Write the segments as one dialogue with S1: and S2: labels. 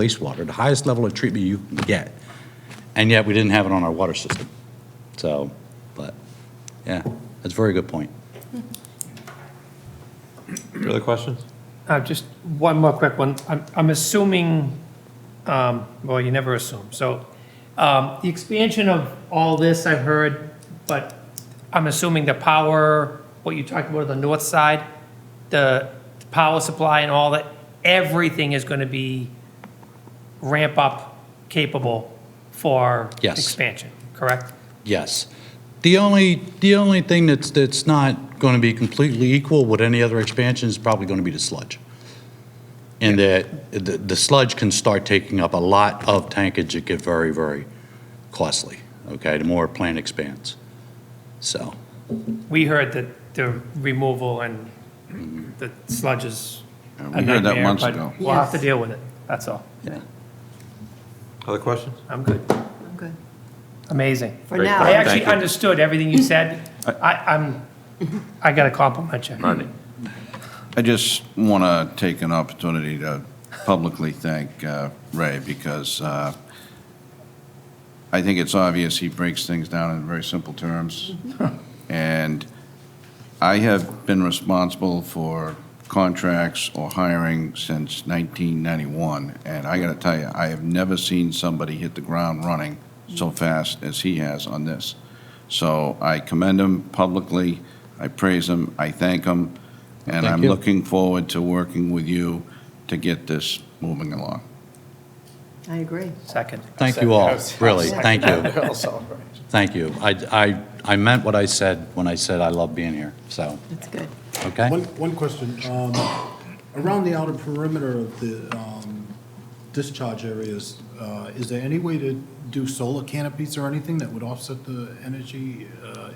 S1: wastewater, the highest level of treatment you can get. And yet, we didn't have it on our water system. So, but, yeah, that's a very good point.
S2: Other questions?
S3: Uh, Just one more quick one. I'm I'm assuming, um, well, you never assume. So um, the expansion of all this, I've heard, but I'm assuming the power, what you talked about on the north side, the power supply and all that, everything is going to be ramp-up capable for
S1: Yes.
S3: expansion, correct?
S1: Yes. The only, the only thing that's, that's not going to be completely equal with any other expansion is probably going to be the sludge. And that, the, the sludge can start taking up a lot of tankage, it get very, very costly, okay, the more a plant expands. So,
S3: We heard that the removal and the sludge is
S4: Yeah, we
S3: a
S4: heard that
S3: nightmare,
S4: months
S3: but
S4: ago.
S3: We'll have to
S5: Yes.
S3: deal with it, that's all.
S2: Other questions?
S3: I'm good.
S5: I'm good.
S3: Amazing.
S5: For
S2: Great
S3: I
S2: thought.
S5: now,
S3: actually
S2: Thank you.
S3: understood everything you said. I, I'm, I got to compliment you.
S4: I just want to take an opportunity to publicly thank uh, Ray because uh, I think it's obvious he breaks things down in very simple terms. And I have been responsible for contracts or hiring since 1991. And I got to tell you, I have never seen somebody hit the ground running so fast as he has on this. So I commend him publicly, I praise him, I thank him, and I'm
S1: you.
S4: looking forward to working with you to get this moving along.
S5: I agree.
S3: Second.
S1: thank you all, really, thank you, thank you. I, I, I meant what I said when I said I love being here, so,
S5: That's good.
S1: okay?
S6: One, one question. Um, Around the outer perimeter of the um, discharge areas, uh, is there any way to do solar canopies or anything that would offset the energy? uh,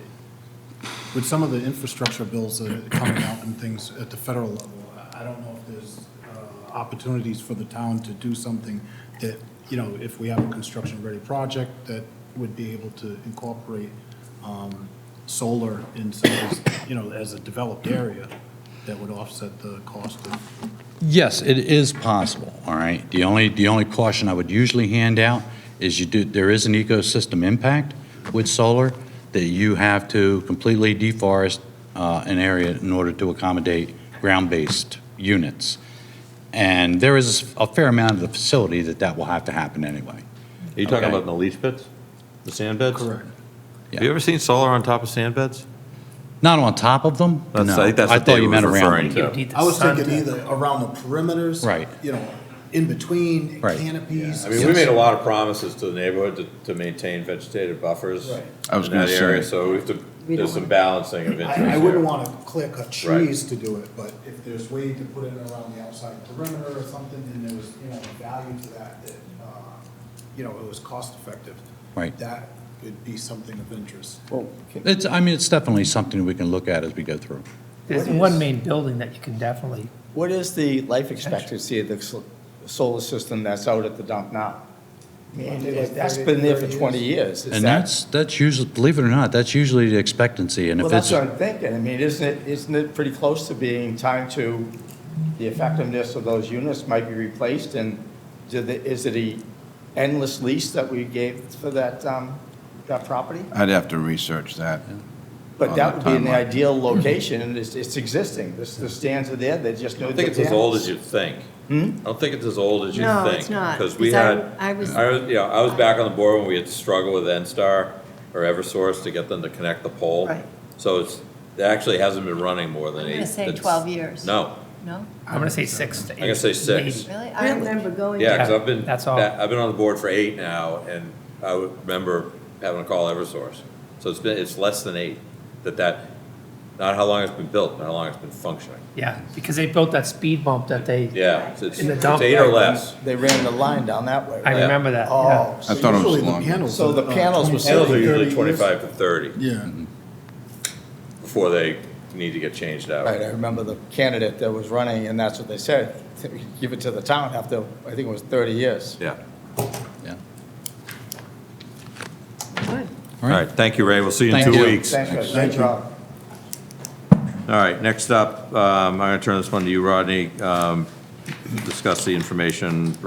S6: With some of the infrastructure bills that are coming out and things at the federal level, I I don't know if there's uh, opportunities for the town to do something that, you know, if we have a construction-ready project, that would be able to incorporate um, solar in some, of these, you know, as a developed area that would offset the cost of.
S1: Yes, it is possible, all right? The only, the only caution I would usually hand out is you do, there is an ecosystem impact with solar that you have to completely deforest uh, an area in order to accommodate ground-based units. And there is a fair amount of the facility that that will have to happen anyway.
S2: Are you talking
S1: Okay.
S2: about in the leach pits? The sand beds? Have you ever seen solar on top of sand beds?
S1: Not on top of them?
S2: That's-
S1: No.
S2: I think that's what
S1: thought
S2: David
S1: you meant
S2: was
S1: around
S2: referring
S1: them.
S2: to.
S3: You need the
S6: I was
S3: sun
S6: thinking
S3: to-
S6: either around the perimeters.
S1: Right.
S6: You know, in between
S1: Right.
S6: canopies.
S2: I mean, we made a lot of promises to the neighborhood to, to maintain vegetative buffers
S6: Right.
S4: I was
S2: in that
S4: gonna say.
S2: area, so we have to,
S5: We
S2: there's
S5: don't
S2: some
S5: want-
S2: balancing of interest
S6: I, I wouldn't
S2: here.
S6: want to clear cut trees to do it, but if there's way to put it around the outside perimeter or something, and there was, you know, value to that, that, uh, you know, it was cost effective.
S1: Right.
S6: That would be something of interest.
S1: It's, I mean, it's definitely something we can look at as we go through.
S3: There's one main building that you can definitely,
S7: What is the life expectancy of the sol- solar system that's out at the dump now? I mean, it- That's been there for 20 years. Is
S1: And
S7: that-
S1: that's, that's usually, believe it or not, that's usually the expectancy, and
S7: Well,
S1: if
S7: that's
S1: it's,
S7: what I'm thinking. I mean, isn't it, isn't it pretty close to being time to, the effectiveness of those units might be replaced? And do the- is it a endless lease that we gave for that, um, that property?
S4: I'd have to research that.
S7: But
S4: On
S7: that
S4: that
S7: would be in the
S4: timeline.
S7: ideal location, and it's, it's existing. This- The stands are there, they just know.
S2: I think it's as old as you think. I don't think it's as old as you think.
S5: No, it's not,
S2: Because we
S5: because I-
S2: had, I
S5: I
S2: was,
S5: was-
S2: you know, I was back on the board when we had to struggle with N-Star or Eversource to get them to connect the pole.
S5: Right.
S2: So it's, it actually hasn't been running more than
S5: I'm
S2: eight.
S5: gonna say
S2: it's-
S5: 12 years.
S2: No,
S5: No?
S3: I'm going to say six to eight.
S2: gonna say six.
S3: maybe.
S5: Really? I remember going.
S2: Yeah, because
S3: Yeah,
S2: I've been,
S3: that's all.
S2: I've been on the board for eight now, and I would remember having to call Eversource. So it's been, it's less than eight, that that, not how long it's been built, but how long it's been functioning.
S3: Yeah, because they built that speed bump that they,
S2: Yeah, it's, it's
S3: In the
S2: it's
S3: dump.
S2: eight or less.
S7: They ran the line down that way,
S3: I
S7: right?
S2: Yeah.
S3: remember that, yeah.
S7: Oh,
S4: I thought it was longer.
S7: So the panels were
S2: Panels are usually
S6: 30 years.
S2: twenty-five to thirty
S6: Yeah.
S2: before they need to get changed out.
S7: Right, I remember the candidate that was running, and that's what they said, give it to the town after, I think it was 30 years.
S2: Yeah.
S1: yeah.
S5: Good.
S2: All right, thank you, Ray. We'll see you in
S1: Thank
S2: two
S1: you.
S2: weeks. All
S7: Thank you, great job.
S2: right, next up, um, I'm going to turn this one to you, Rodney. Um, Discuss the information